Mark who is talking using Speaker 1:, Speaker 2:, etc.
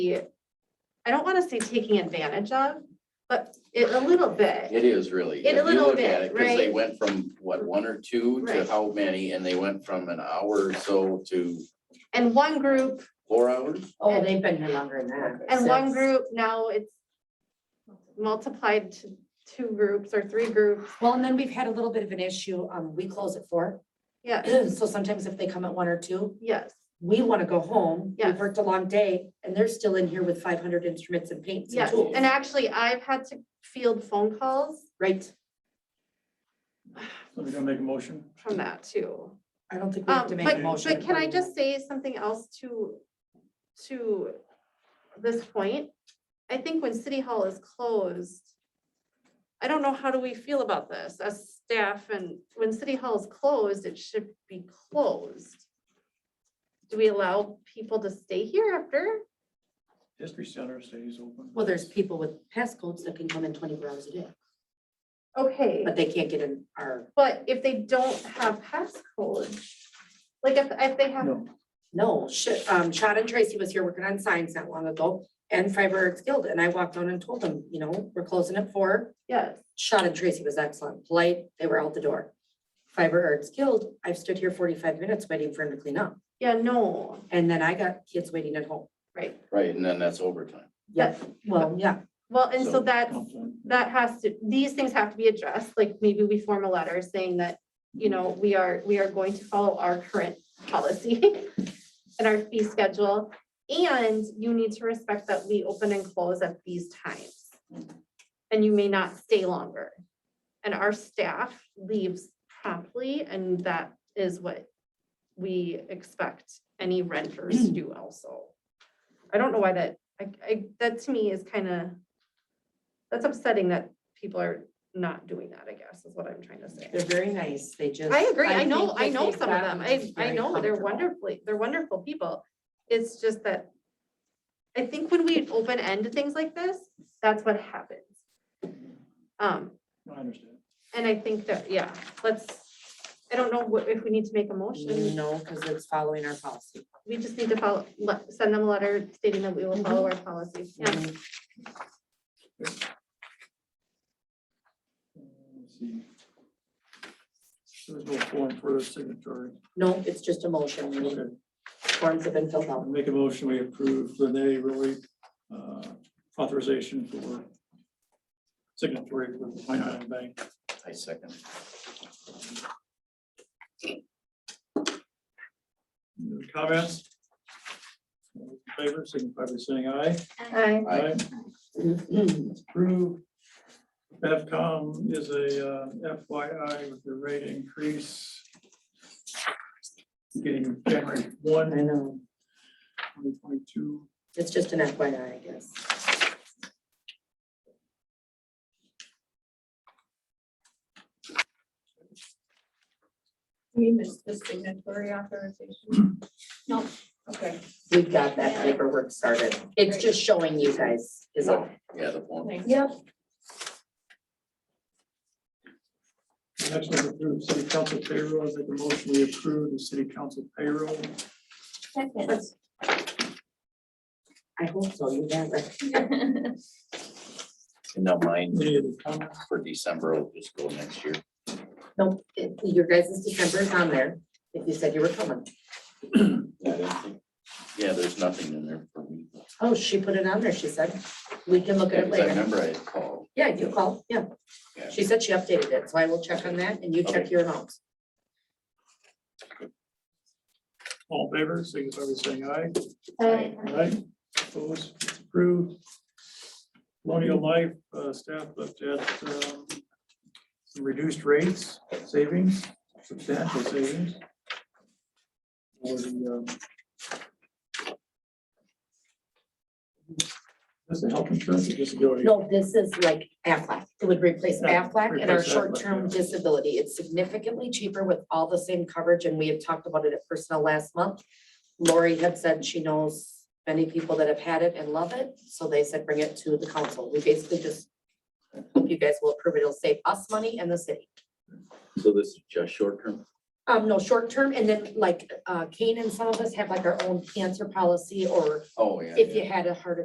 Speaker 1: I don't want to say taking advantage of, but it a little bit.
Speaker 2: It is really.
Speaker 1: In a
Speaker 2: if you
Speaker 1: little
Speaker 2: look at
Speaker 1: bit,
Speaker 2: it, 'cause They
Speaker 1: right?
Speaker 2: went from, what, one or two to
Speaker 1: Right.
Speaker 2: how many, and they went from an hour or so to
Speaker 1: And one group,
Speaker 2: four hours?
Speaker 3: Oh, they've been here longer than that.
Speaker 1: and one
Speaker 3: Since-
Speaker 1: group, now it's multiplied to two groups or three groups.
Speaker 3: Well, and then we've had a little bit of an issue. Um, we close at four.
Speaker 1: Yeah,
Speaker 3: So sometimes if they come at one or two,
Speaker 1: yes,
Speaker 3: we want to go home. We've
Speaker 1: Yes.
Speaker 3: worked a long day and they're still in here with five hundred instruments and paints and
Speaker 1: yes.
Speaker 3: tools,
Speaker 1: And actually, I've had to field phone calls
Speaker 3: right?
Speaker 4: So we're gonna make a motion?
Speaker 1: from that too.
Speaker 3: I don't think we
Speaker 1: Um,
Speaker 3: have to make a
Speaker 1: but,
Speaker 3: motion.
Speaker 1: but can I just say something else to, to this point? I think when city hall is closed, I don't know, how do we feel about this as staff and when city hall is closed, it should be closed. Do we allow people to stay here after?
Speaker 4: History Center stays open.
Speaker 3: Well, there's people with passcodes that can come in twenty-four hours a day,
Speaker 1: Okay.
Speaker 3: but they can't get in our,
Speaker 1: But if they don't have passcode, like if, if they have,
Speaker 4: No,
Speaker 3: no, shit. Um, Chad and Tracy was here working on signs not long ago and Fiber Arts Guild. And I walked on and told them, you know, we're closing at four.
Speaker 1: yes,
Speaker 3: Shot and Tracy was excellent, polite, they were out the door. Fiber Arts Guild, I've stood here forty-five minutes waiting for him to clean up,
Speaker 1: yeah, no,
Speaker 3: and then I got kids waiting at home.
Speaker 1: right.
Speaker 2: Right, and then that's overtime.
Speaker 1: Yeah.
Speaker 3: Well, yeah,
Speaker 1: Well, and so
Speaker 2: So-
Speaker 1: that's,
Speaker 4: complaint.
Speaker 1: that has to, these things have to be addressed, like maybe we form a letter saying that, you know, we are, we are going to follow our current policy and our fee schedule, and you need to respect that we open and close at these times. And you may not stay longer. And our staff leaves promptly, and that is what we expect any renters to do also. I don't know why that, I, I, that to me is kind of that's upsetting that people are not doing that, I guess, is what I'm trying to
Speaker 3: they're
Speaker 1: say.
Speaker 3: very nice, they just.
Speaker 1: I agree, I know,
Speaker 3: think
Speaker 1: I
Speaker 3: that
Speaker 1: know
Speaker 3: they've
Speaker 1: some of them,
Speaker 3: gotten
Speaker 1: I, I
Speaker 3: very
Speaker 1: know, they're
Speaker 3: comfortable.
Speaker 1: wonderfully, they're wonderful people. It's just that, I think when we open end to things like this, that's what happens. Um,
Speaker 4: I understand.
Speaker 1: and I think that, yeah, let's, I don't know what, if we need to make a motion,
Speaker 3: No, because it's following our policy.
Speaker 1: we just need to follow, le- send them a letter stating that we will follow our policy. Yeah,
Speaker 3: Mhm.
Speaker 4: Uh, Let's see. There's no form for a signatory.
Speaker 3: No, it's just a motion, we need-
Speaker 4: Okay.
Speaker 3: forms have been filled
Speaker 4: I'll
Speaker 3: out.
Speaker 4: Make a motion, we approve Renee Roy, uh, authorization for signatory for the Pine Island Bank.
Speaker 2: I second.
Speaker 4: Any other Comments? All in Favor, signify by saying aye.
Speaker 1: Aye.
Speaker 2: Aye.
Speaker 3: Mm-hmm.
Speaker 4: It's Approved. FCOM is a uh, FYI with the rate increase. Getting January
Speaker 3: I
Speaker 4: one,
Speaker 3: know,
Speaker 4: twenty twenty-two.
Speaker 3: it's just an FYI, I guess.
Speaker 5: You missed the signatory authorization? No. Okay,
Speaker 3: We've got that paperwork started, it's just showing you guys is all.
Speaker 2: Yeah, the one.
Speaker 5: thanks.
Speaker 3: Yep.
Speaker 4: Next one, approve city council payroll. I make a motion, we approve the city council payroll.
Speaker 3: I hope so, you got it.
Speaker 2: And now mine
Speaker 4: Any other comments?
Speaker 2: for December will just go next year.
Speaker 3: No, it- your guys' December is on there, if you said you were coming.
Speaker 2: Yeah, I don't think- Yeah, there's nothing in there for me.
Speaker 3: Oh, she put it on there, she said. We can look at
Speaker 2: Yeah,
Speaker 3: it
Speaker 2: 'cause I
Speaker 3: later.
Speaker 2: remember I had called.
Speaker 3: Yeah, you call, yeah.
Speaker 2: Yeah.
Speaker 3: She said she updated it, so I will check on that and you check
Speaker 2: Okay.
Speaker 3: your amounts.
Speaker 4: All in favor, signify by saying aye.
Speaker 1: Aye.
Speaker 4: All right, opposed, it's approved. Colonial Life uh, staff looked at um, some reduced rates, savings, substantial savings. For the, um, Is it health insurance or disability?
Speaker 3: No, this is like Aflac. It would replace
Speaker 4: Yeah,
Speaker 3: Aflac and our
Speaker 4: replace Aflac,
Speaker 3: short-term
Speaker 4: yeah.
Speaker 3: disability. It's significantly cheaper with all the same coverage and we had talked about it at Personnel last month. Lori had said she knows many people that have had it and love it, so they said bring it to the council. We basically just hope you guys will approve it. It'll save us money and the city.
Speaker 2: So this is just short term?
Speaker 3: Um, no, short term, and then like, uh, Kane and some of us have like our own cancer policy, or
Speaker 2: Oh, yeah.
Speaker 3: if
Speaker 2: yeah.
Speaker 3: you had a heart